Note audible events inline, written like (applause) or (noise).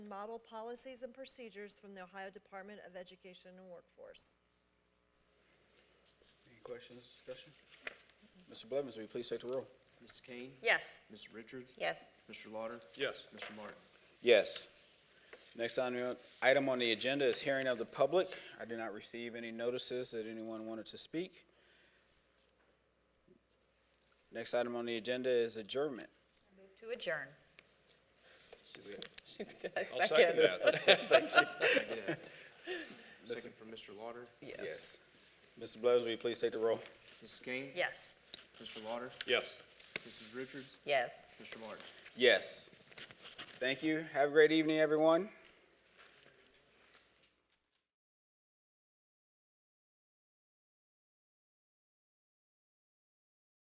model policies and procedures from the Ohio Department of Education and Workforce. Any questions, discussion? Mr. Blevins, will you please take the roll? Mrs. Kane? Yes. Ms. Richards? Yes. Mr. Lauder? Yes. Mr. (laughs) Martin? Yes. Next item item on the agenda is hearing of the public. I did not receive any notices that anyone wanted to speak. Next item on the agenda is adjournment. To adjourn. She's good. Second. Second from Mr. Lauder. Yes. Mr. Blevins, will you please take the roll? Mrs. Kane? Yes. Mr. Lauder? Yes. Mrs. Richards? Yes. Mr. Martin? Yes. Thank you. Have a great evening, everyone.